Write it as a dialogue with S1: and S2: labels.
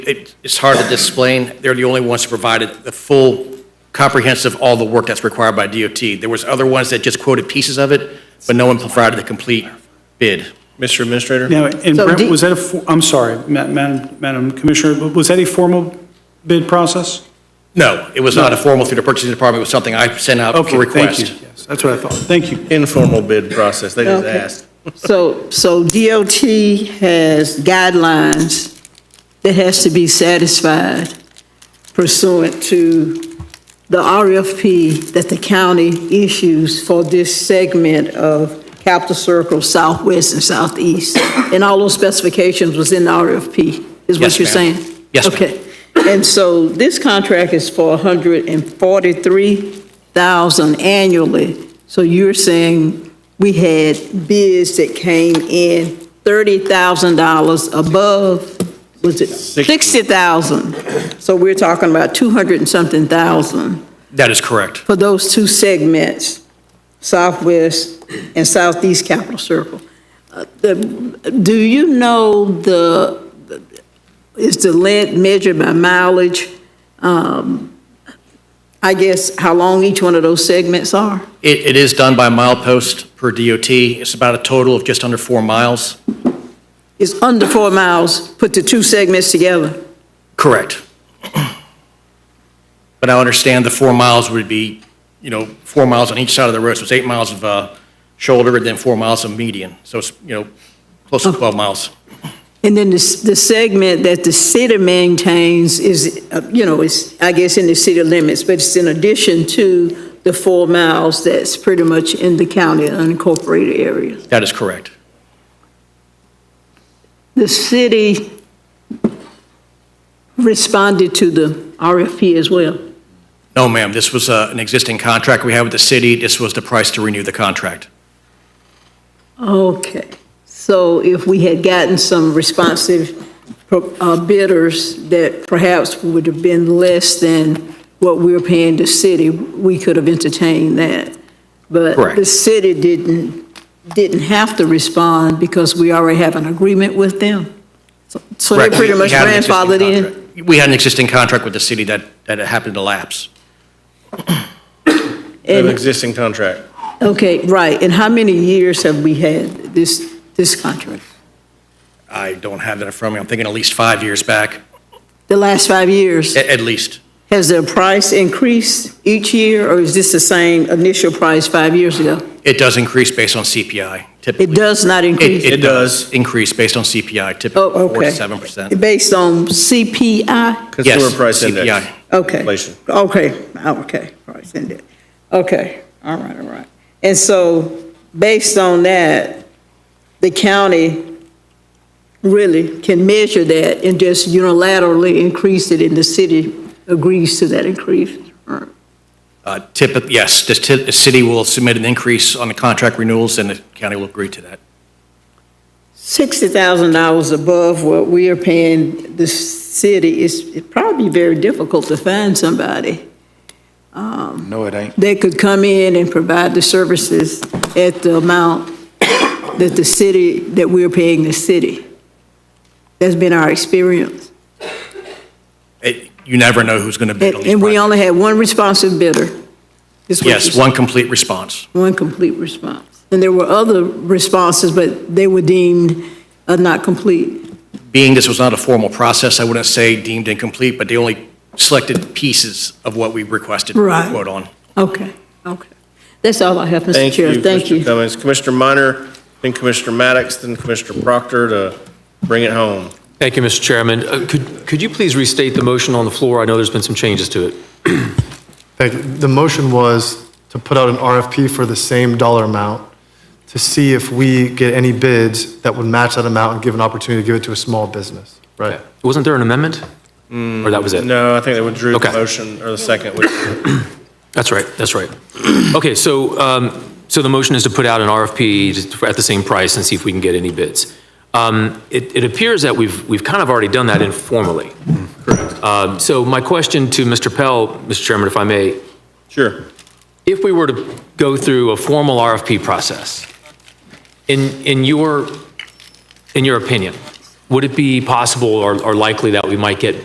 S1: It- It's hard to explain. They're the only ones who provided the full comprehensive, all the work that's required by DOT. There was other ones that just quoted pieces of it, but no one provided the complete bid.
S2: Mr. Administrator?
S3: Now, and
S4: So
S3: Brent,
S4: do-
S3: was that a, for- I'm sorry, Ma- Madam Madam Commissioner, but was that a formal bid process?
S1: No, it was not a formal through the purchasing department. It was something I sent out for
S3: Okay, thank you.
S1: request.
S3: Yes, that's what I thought. Thank you.
S2: Informal bid process, they just
S4: Okay.
S2: asked.
S4: So, so DOT has guidelines that has to be satisfied pursuant to the RFP that the county issues for this segment of Capital Circle Southwest and Southeast. And all those specifications was in the RFP, is
S1: Yes,
S4: what you're
S1: ma'am.
S4: saying?
S1: Yes, ma'am.
S4: Okay. And so this contract is for 143,000 annually. So you're saying we had bids that came in $30,000 above, was it 60,000? So we're talking about 200 and something thousand
S1: That is correct.
S4: for those two segments, Southwest and Southeast Capital Circle. Uh, the- Do you know the, is the lead measured by mileage? Um, I guess how long each one of those segments are?
S1: It, it is done by milepost per DOT. It's about a total of just under four miles.
S4: It's under four miles, put the two segments together.
S1: Correct. But I understand the four miles would be, you know, four miles on each side of the road, so it's eight miles of uh, shoulder, and then four miles of median, so it's, you know, close to 12 miles.
S4: And then the, s- the segment that the city maintains is, uh, you know, is, I guess, in the city limits, but it's in addition to the four miles that's pretty much in the county unincorporated area.
S1: That is correct.
S4: The city responded to the RFP as well.
S1: No, ma'am, this was uh, an existing contract we had with the city, this was the price to renew the contract.
S4: Okay, so if we had gotten some responsive uh, bidders that perhaps would have been less than what we were paying the city, we could have entertained that. But the
S1: Correct.
S4: city didn't, didn't have to respond because we already have an agreement with them. So- So they're
S1: Correct.
S4: pretty
S1: We- we
S4: much
S1: had an existing
S4: grandfathered in.
S1: contract. We had an existing contract with the city that, that happened to lapse.
S2: An
S4: And-
S2: existing contract.
S4: Okay, right, and how many years have we had this, this contract?
S1: I don't have that in front of me, I'm thinking at least five years back,
S4: The last five years?
S1: at, at least.
S4: Has the price increased each year, or is this the same initial price five years ago?
S1: It does increase based on CPI, typically.
S4: It does not
S1: It,
S4: increase?
S1: it does increase based on CPI, typically
S4: Oh,
S1: four to
S4: okay.
S1: seven percent.
S4: Based on CPI?
S2: Consumer Price Index.
S1: CPI.
S4: Okay.
S2: Inflation.
S4: Okay, okay, price index. Okay, all right, all right. And so, based on that, the county really can measure that and just unilaterally increase it, and the city agrees to that increase? All right.
S1: Uh, typically, yes, the, ti- the city will submit an increase on the contract renewals and the county will agree to that.
S4: $60,000 above what we are paying the city is it'd probably very difficult to find somebody um,
S5: No, it ain't.
S4: that could come in and provide the services at the amount that the city, that we're paying the city. That's been our experience.
S1: It, you never know who's going to bid
S4: And
S1: on these
S4: and we
S1: projects.
S4: only had one responsive bidder. is what you
S1: Yes,
S4: said.
S1: one complete response.
S4: One complete response. And there were other responses, but they were deemed uh, not complete.
S1: Being this was not a formal process, I wouldn't say deemed incomplete, but they only selected pieces of what we requested for
S4: Right.
S1: quote on.
S4: Okay, okay. That's all I have, Mr.
S2: Thank
S4: Chair.
S2: you, Mr. Cummings. Commissioner Minor, then Commissioner Maddox, then Commissioner Proctor to bring it home.
S6: Thank you, Mr. Chairman. Uh, Could could you please restate the motion on the floor? I know there's been some changes to it.
S7: fact, the motion was to put out an RFP for the same dollar amount to see if we get any bids that would match that amount and give an opportunity to give it to a small business, right?
S6: Wasn't there an amendment? Or that was it?
S2: No, I think they withdrew the
S6: Okay.
S2: motion, or the second withdrew.
S6: That's right, that's right. Okay, so, um, so the motion is to put out an RFP to- at the same price and see if we can get any bids. Um, It it appears that we've, we've kind of already done that informally. Correct. So my question to Mr. Pell, Mr. Chairman, if I may,
S2: Sure.
S6: if we were to go through a formal RFP process, in, in your, in your opinion, Would it be possible or or likely that we might get